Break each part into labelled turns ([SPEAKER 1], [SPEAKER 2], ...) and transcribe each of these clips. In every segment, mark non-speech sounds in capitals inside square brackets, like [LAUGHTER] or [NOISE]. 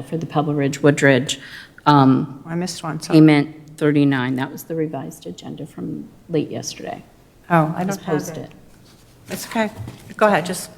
[SPEAKER 1] for the Pebble Ridge Woodridge um,
[SPEAKER 2] I missed one, so,
[SPEAKER 1] payment 39. That was the revised agenda from late yesterday.
[SPEAKER 2] oh, I
[SPEAKER 1] It was
[SPEAKER 2] don't have
[SPEAKER 1] posted.
[SPEAKER 2] it. It's okay, go ahead, just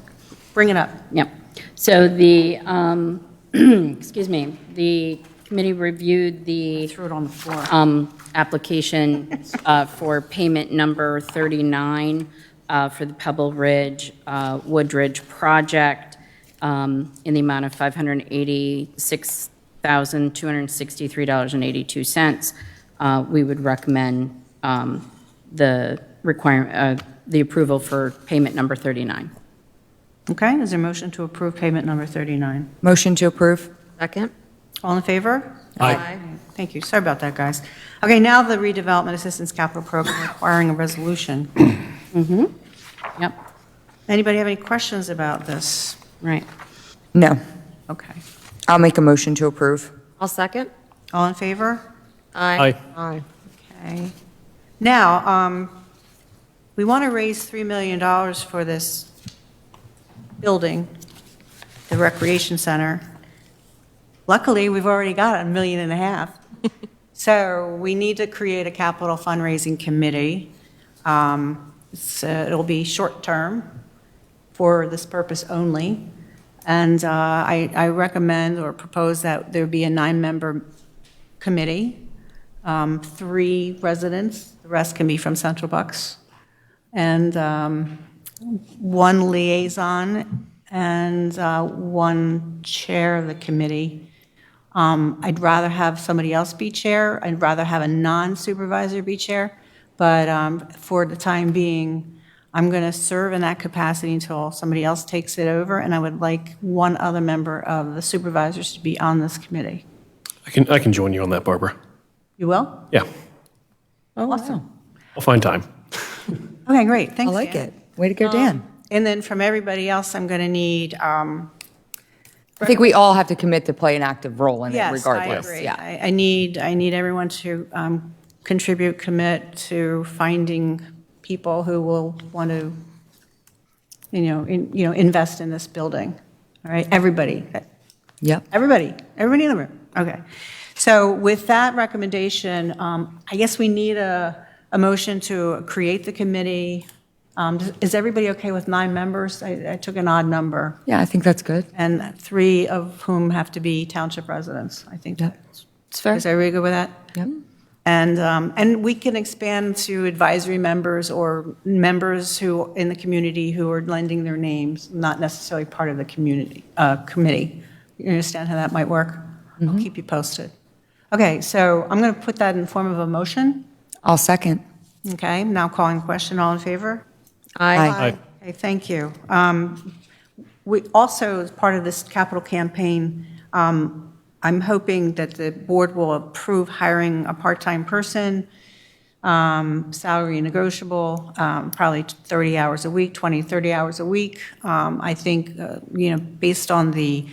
[SPEAKER 2] bring it up.
[SPEAKER 1] Yep. So the, um, [CLEARS THROAT] excuse me, the committee reviewed the
[SPEAKER 2] Threw it on the floor.
[SPEAKER 1] um, application uh, for payment number 39 uh, for the Pebble Ridge uh, Woodridge project um, in the amount of $586,263.82. Uh, We would recommend um, the requirement, uh, the approval for payment number 39.
[SPEAKER 2] Okay, is there a motion to approve payment number 39?
[SPEAKER 3] Motion to approve?
[SPEAKER 4] Second?
[SPEAKER 2] All in favor?
[SPEAKER 4] Aye.
[SPEAKER 2] Thank you, sorry about that, guys. Okay, now the redevelopment assistance capital program requiring a resolution.
[SPEAKER 1] Yep,
[SPEAKER 2] Anybody have any questions about this?
[SPEAKER 1] right.
[SPEAKER 3] No.
[SPEAKER 2] Okay,
[SPEAKER 3] I'll make a motion to approve.
[SPEAKER 4] I'll second.
[SPEAKER 2] all in favor?
[SPEAKER 4] Aye. Aye.
[SPEAKER 2] Okay. Now, um, we want to raise $3 million for this building, the recreation center. Luckily, we've already got a million and a half. So we need to create a capital fundraising committee. Um, it's, uh, It'll be short-term for this purpose only. And uh, I I recommend or propose that there be a nine-member committee, um, three residents, the rest can be from Central Bucks, and um, one liaison and uh, one chair of the committee. Um, I'd rather have somebody else be chair, I'd rather have a non-supervisor be chair, but um, for the time being, I'm going to serve in that capacity until somebody else takes it over, and I would like one other member of the supervisors to be on this committee.
[SPEAKER 5] I can, I can join you on that, Barbara.
[SPEAKER 2] You will?
[SPEAKER 5] Yeah,
[SPEAKER 3] Oh, wow.
[SPEAKER 5] I'll find time.
[SPEAKER 2] Okay, great, thanks,
[SPEAKER 3] I like
[SPEAKER 2] Dan.
[SPEAKER 3] it. Way
[SPEAKER 2] Um,
[SPEAKER 3] to go, Dan.
[SPEAKER 2] And then from everybody else, I'm going to need, um,
[SPEAKER 3] I think we all have to commit to play an active role in it
[SPEAKER 2] yes, I
[SPEAKER 3] regardless.
[SPEAKER 2] agree.
[SPEAKER 3] Yeah.
[SPEAKER 2] I I need, I need everyone to um, contribute, commit to finding people who will want to, you know, in- you know, invest in this building, all right? Everybody,
[SPEAKER 3] Yep.
[SPEAKER 2] everybody, everybody in the room, okay. So with that recommendation, um, I guess we need a, a motion to create the committee. Um, Is everybody okay with nine members? I I took an odd number.
[SPEAKER 3] Yeah, I think that's good.
[SPEAKER 2] and three of whom have to be township residents. I think that's,
[SPEAKER 3] It's fair.
[SPEAKER 2] is everybody good with that?
[SPEAKER 3] Yep.
[SPEAKER 2] And, um, and we can expand to advisory members or members who, in the community who are lending their names, not necessarily part of the community, uh, committee. You understand how that might work?
[SPEAKER 3] Mm-hmm.
[SPEAKER 2] I'll keep you posted. Okay, so I'm going to put that in the form of a motion,
[SPEAKER 3] I'll second.
[SPEAKER 2] okay? Now calling question, all in favor?
[SPEAKER 3] Aye.
[SPEAKER 5] Aye.
[SPEAKER 2] Okay, thank you. Um, We also, as part of this capital campaign, um, I'm hoping that the board will approve hiring a part-time person, um, salary negotiable, um, probably 30 hours a week, 20, 30 hours a week. Um, I think, uh, you know, based on the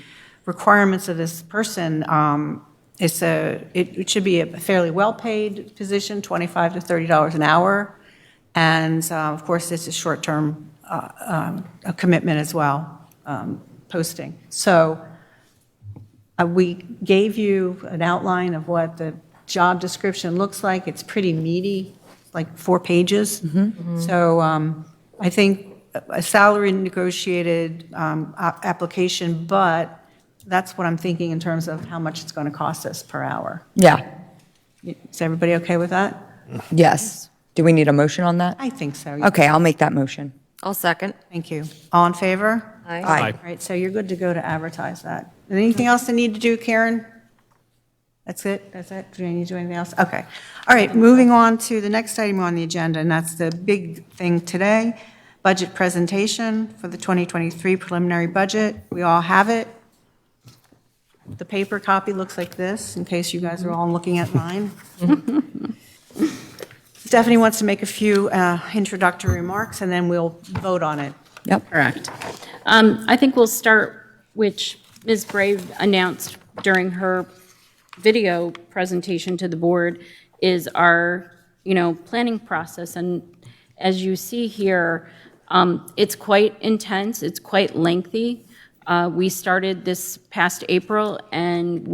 [SPEAKER 2] requirements of this person, um, it's a, it it should be a fairly well-paid position, 25 to $30 an hour. And uh, of course, it's a short-term uh, um, a commitment as well, um, posting. So uh, we gave you an outline of what the job description looks like. It's pretty meaty, like four pages. So um, I think a salary negotiated um, a- application, but that's what I'm thinking in terms of how much it's going to cost us per hour.
[SPEAKER 3] Yeah.
[SPEAKER 2] Is everybody okay with that?
[SPEAKER 3] Yes. Do we need a motion on that?
[SPEAKER 2] I think so.
[SPEAKER 3] Okay, I'll make that motion.
[SPEAKER 4] I'll second.
[SPEAKER 2] Thank you. All in favor?
[SPEAKER 3] Aye.
[SPEAKER 2] All right, so you're good to go to advertise that. Is there Anything else I need to do, Karen? That's it? That's it? Do I need to do anything else? Okay. All right, moving on to the next item on the agenda, and that's the big thing today, budget presentation for the 2023 preliminary budget. We all have it. The paper copy looks like this, in case you guys are all looking at mine. [LAUGHS] Stephanie wants to make a few uh, introductory remarks, and then we'll vote on it.
[SPEAKER 3] Yep.
[SPEAKER 1] Correct. Um, I think we'll start, which Ms. Brave announced during her video presentation to the board, is our, you know, planning process. And as you see here, um, it's quite intense, it's quite lengthy. Uh, We started this past April, and